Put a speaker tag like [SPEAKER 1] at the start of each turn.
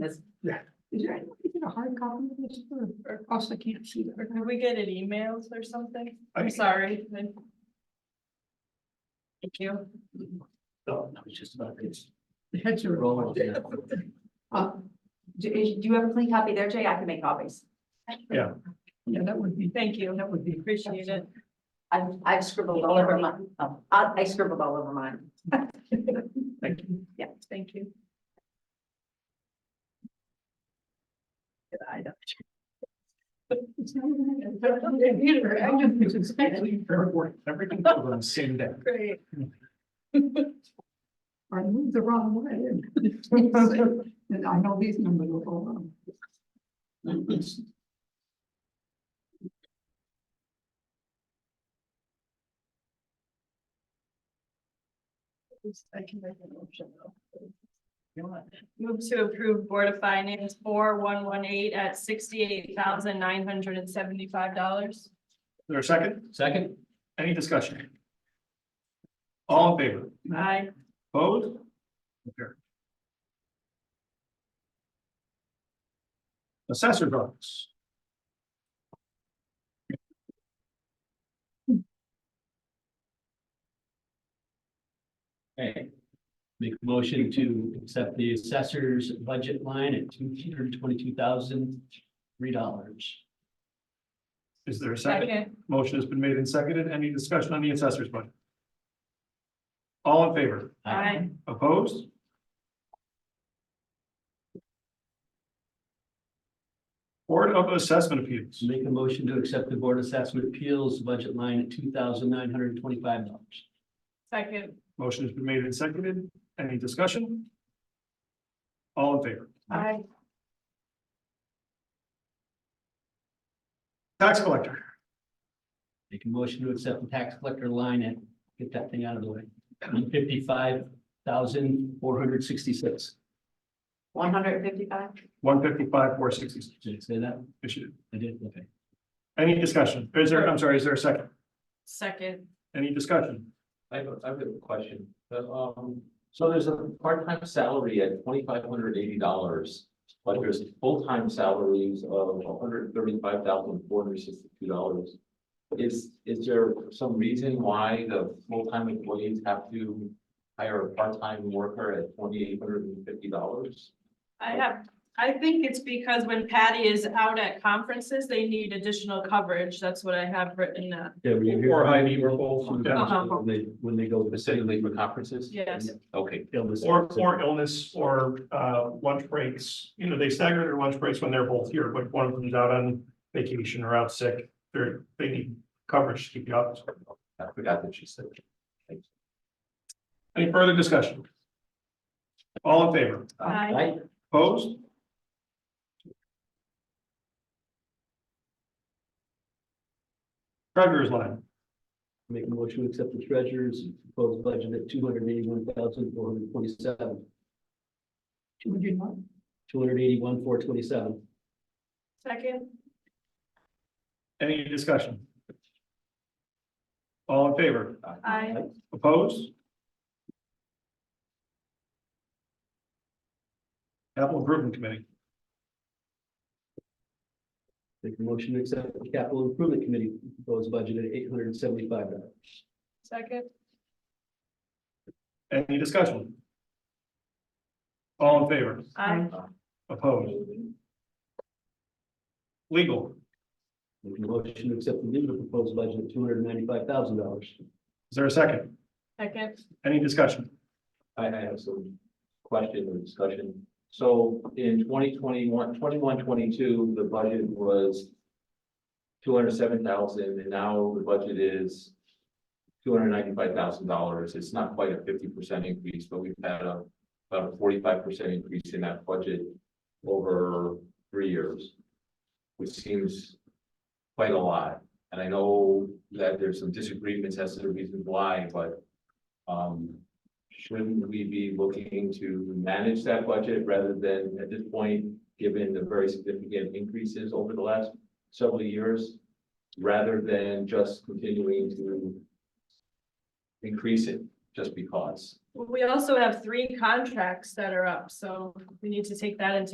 [SPEAKER 1] That's, yeah. Is there any way to get a hard copy of this or, or else I can't see that?
[SPEAKER 2] Did we get an emails or something?
[SPEAKER 1] I-
[SPEAKER 2] I'm sorry. Thank you.
[SPEAKER 1] Oh, that was just about it. The heads are rolling. Uh,
[SPEAKER 3] Do, do you have a clean copy there, Jay? I can make copies.
[SPEAKER 1] Yeah. yeah, that would be,
[SPEAKER 2] Thank you.
[SPEAKER 1] that would be.
[SPEAKER 2] Appreciate it.
[SPEAKER 3] I've, I've scribbled all over my, oh, I I scribbled all over mine.
[SPEAKER 1] Thank you.
[SPEAKER 2] Yeah, thank you.
[SPEAKER 3] I don't-
[SPEAKER 1] It's not even- it's not even either. I just was expecting fair work. Everything on the same day.
[SPEAKER 2] Great.
[SPEAKER 1] I moved the wrong way. and- And I know these numbers will go wrong.
[SPEAKER 2] I can make an option though. Move to approve Board of Finance four one one eight at sixty-eight thousand nine hundred and seventy-five dollars.
[SPEAKER 4] There a second?
[SPEAKER 5] Second,
[SPEAKER 4] Any discussion? All in favor?
[SPEAKER 2] Aye.
[SPEAKER 4] Opposed? Carried. Assessor's office.
[SPEAKER 5] hey. Make a motion to accept the assessor's budget line at two hundred twenty-two thousand, three dollars.
[SPEAKER 4] Is there a second?
[SPEAKER 2] Second.
[SPEAKER 4] Motion has been made and seconded. Any discussion on the assessor's budget? All in favor?
[SPEAKER 2] Aye.
[SPEAKER 4] Opposed? Board of Assessment Appeals.
[SPEAKER 5] Make a motion to accept the board of assessment appeals budget line at two thousand nine hundred twenty-five dollars.
[SPEAKER 2] Second.
[SPEAKER 4] Motion has been made and seconded. Any discussion? All in favor?
[SPEAKER 2] Aye.
[SPEAKER 4] Tax collector.
[SPEAKER 5] Make a motion to accept the tax collector line at, get that thing out of the way, one fifty-five thousand, four hundred sixty-six.
[SPEAKER 3] One hundred and fifty-five?
[SPEAKER 4] One fifty-five, four sixty-six.
[SPEAKER 5] Did I say that?
[SPEAKER 4] Issued.
[SPEAKER 5] I did, okay.
[SPEAKER 4] Any discussion? Is there, I'm sorry, is there a second?
[SPEAKER 2] Second.
[SPEAKER 4] Any discussion?
[SPEAKER 6] I have, a I have a question. The, um, so there's a part-time salary at twenty-five hundred eighty dollars. But there's full-time salaries of hundred thirty-five thousand four hundred sixty-two dollars. Is, is there some reason why the full-time employees have to hire a part-time worker at twenty-eight hundred and fifty dollars?
[SPEAKER 2] I have, I think it's because when Patty is out at conferences, they need additional coverage. That's what I have written down.
[SPEAKER 5] Yeah, were
[SPEAKER 4] you here? Or Heidi, we're both on
[SPEAKER 2] that.
[SPEAKER 5] When they, when they go
[SPEAKER 6] Specifically for conferences?
[SPEAKER 2] Yes.
[SPEAKER 6] Okay.
[SPEAKER 5] illness.
[SPEAKER 4] Or, or illness or, uh, lunch breaks, you know, they stagger their lunch breaks when they're both here, but one of them's out on vacation or out sick. They're, they need coverage to keep the office. open.
[SPEAKER 6] I forgot that she said.
[SPEAKER 4] Any further discussion? All in favor?
[SPEAKER 2] Aye.
[SPEAKER 6] Right?
[SPEAKER 4] Opposed? Treasurer's line,
[SPEAKER 5] Make a motion to accept the treasurer's proposed budget at two hundred eighty-one thousand, four hundred twenty-seven,
[SPEAKER 1] Two hundred one.
[SPEAKER 5] two hundred eighty-one, four twenty-seven.
[SPEAKER 2] Second.
[SPEAKER 4] any discussion? All in favor?
[SPEAKER 2] Aye.
[SPEAKER 4] Opposed? Capital Improvement Committee,
[SPEAKER 5] Make a motion to accept the capital improvement committee proposed budget at eight hundred and seventy-five dollars.
[SPEAKER 2] Second.
[SPEAKER 4] any discussion? All in favor?
[SPEAKER 2] Aye.
[SPEAKER 4] Opposed? Legal,
[SPEAKER 5] Make a motion to accept the legal proposed budget at two hundred ninety-five thousand dollars.
[SPEAKER 4] is there a second?
[SPEAKER 2] Second.
[SPEAKER 4] Any discussion?
[SPEAKER 6] I, I have some question or discussion. So in 2021, 21, 22, the budget was two hundred seven thousand, and now the budget is two hundred ninety-five thousand dollars. It's not quite a fifty percent increase, but we've had a, about a forty-five percent increase in that budget over three years, which seems quite a lot. And I know that there's some disagreements as to the reasons why, but um, shouldn't we be looking to manage that budget rather than at this point, given the very significant increases over the last several years? Rather than just continuing to increase it just because?
[SPEAKER 2] We also have three contracts that are up, so we need to take that into